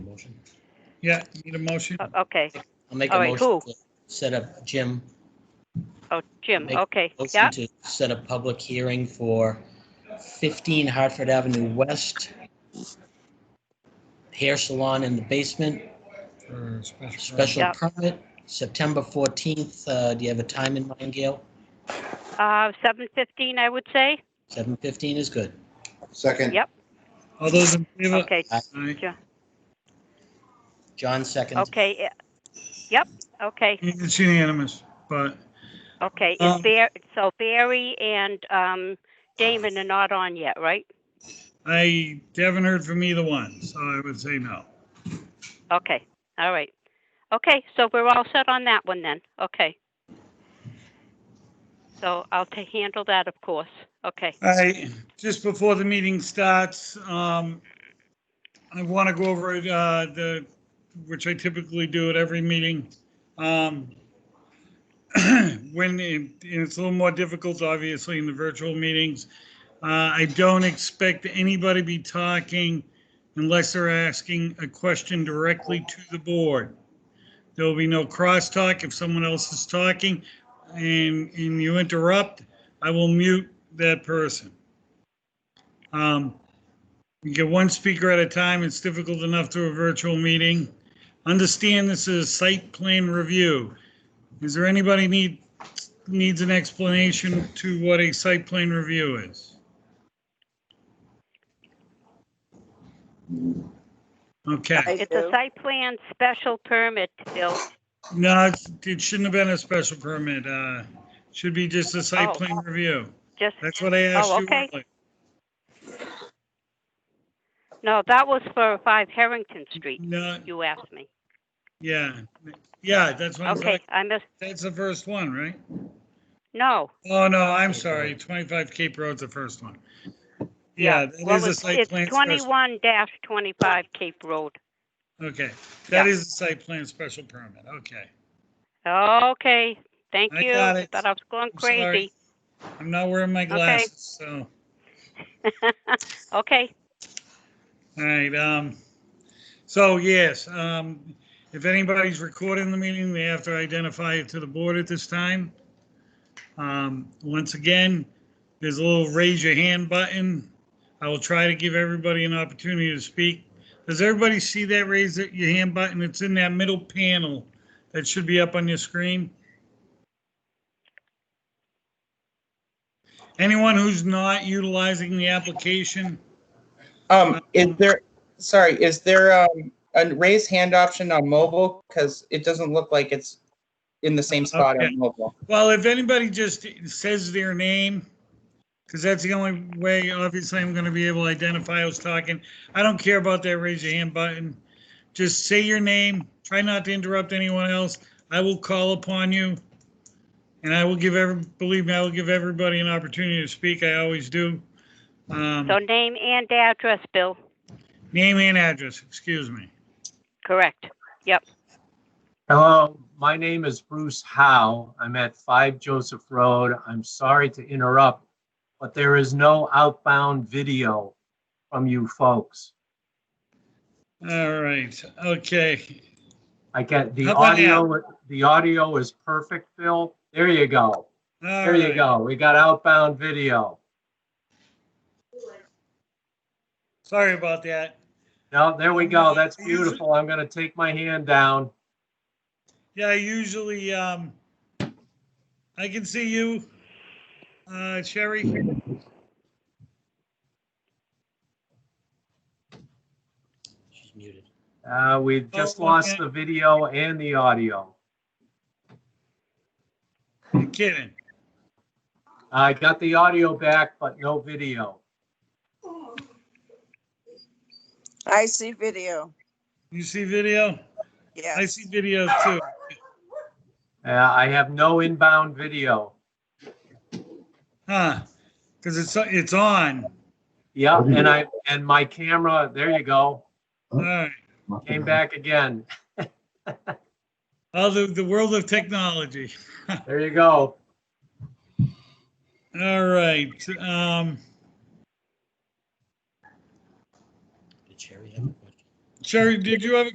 motion. Yeah, need a motion? O- Okay. I'll make a All right, motion who? to set up, Jim, Oh, Jim, Make okay. Yeah, motion to set a public hearing for 15 Hartford Avenue West hair salon in the basement, for a special special Yeah. permit, September 14th. Uh, Do you have a time in mind, Gail? uh, 7:15, I would say. 7:15 is good. Second. Yep. permit? All those in favor? Okay, Aye. John seconds. okay. yeah. Yep, okay, It's unanimous, but okay. Is Um, Bar- So Barry and um, Damon are not on yet, right? I haven't heard from either one, so I would say no. Okay, all right. Okay, so we're all set on that one then. Okay. So I'll ta- handle that, of course. Okay. All right, just before the meeting starts, um, I want to go over, uh, the, which I typically do at every meeting. Um, when, it- it's a little more difficult, obviously, in the virtual meetings. Uh, I don't expect anybody to be talking unless they're asking a question directly to the board. There will be no crosstalk if someone else is talking and, and you interrupt, I will mute that person. Um, You get one speaker at a time, it's difficult enough through a virtual meeting. Understand this is a site plan review. Is there anybody need, needs an explanation to what a site plan review is? Okay, It's a site plan special permit, Bill. no, it's- it shouldn't have been a special permit, uh, should be just a site Oh. plan review. Just, That's what I asked you. Oh, okay. earlier. no, that was for 5 Harrington Street, No, you asked me. Yeah, yeah, that's what I'm Okay, saying. I missed, That's the first one, right? no. Oh, no, I'm sorry. 25 Cape Road's the first one. Yeah, well, that is a it's- site plan. It's special- twenty-one twenty-five Cape Road. Okay, that Yeah. is a site plan special permit. Okay. Okay, thank I you. got it. Thought I was going I'm sorry. crazy. I'm not wearing my glasses, so, Okay, all right. um, So yes, um, if anybody's recording the meeting, they have to identify it to the board at this time. Um, Once again, there's a little raise your hand button. I will try to give everybody an opportunity to speak. Does everybody see that raise it- your hand button? It's in that middle panel that should be up on your screen. Anyone who's not utilizing the application, Um, is there, sorry, is there, um, a raise hand option on mobile? Cause it doesn't look like it's in the same spot Okay. on mobile. well, if anybody just says their name, because that's the only way, obviously, I'm going to be able to identify who's talking. I don't care about that raise your hand button. Just say your name. Try not to interrupt anyone else. I will call upon you. And I will give every, believe me, I will give everybody an opportunity to speak. I always do. Um, so name and address, Bill. Name and address, excuse me. Correct. Hello, my name is Bruce Howe. I'm at 5 Joseph Road. I'm sorry to interrupt, but there is no outbound video from you folks. All right, okay. I get the How about audio, the audio is perfect, Bill. There you go. All There you right. go. We got outbound video. Sorry about that. No, there we go. That's Usually- beautiful. I'm going to take my hand down. Yeah, I usually, um, I can see you, uh, Sherry. She's muted. Uh, we've just Oh, lost okay. the video and the audio. You're kidding. I got the audio back, but no video. I see video, You see video? I yes. see video too. Uh, I have no inbound video. Huh? Cause it's, it's on. Yeah, and I, and my camera, there you go, All right. came back again. Oh, the, the world of technology. There you go. All right, um, Did Sherry have a question? Sherry, did you have a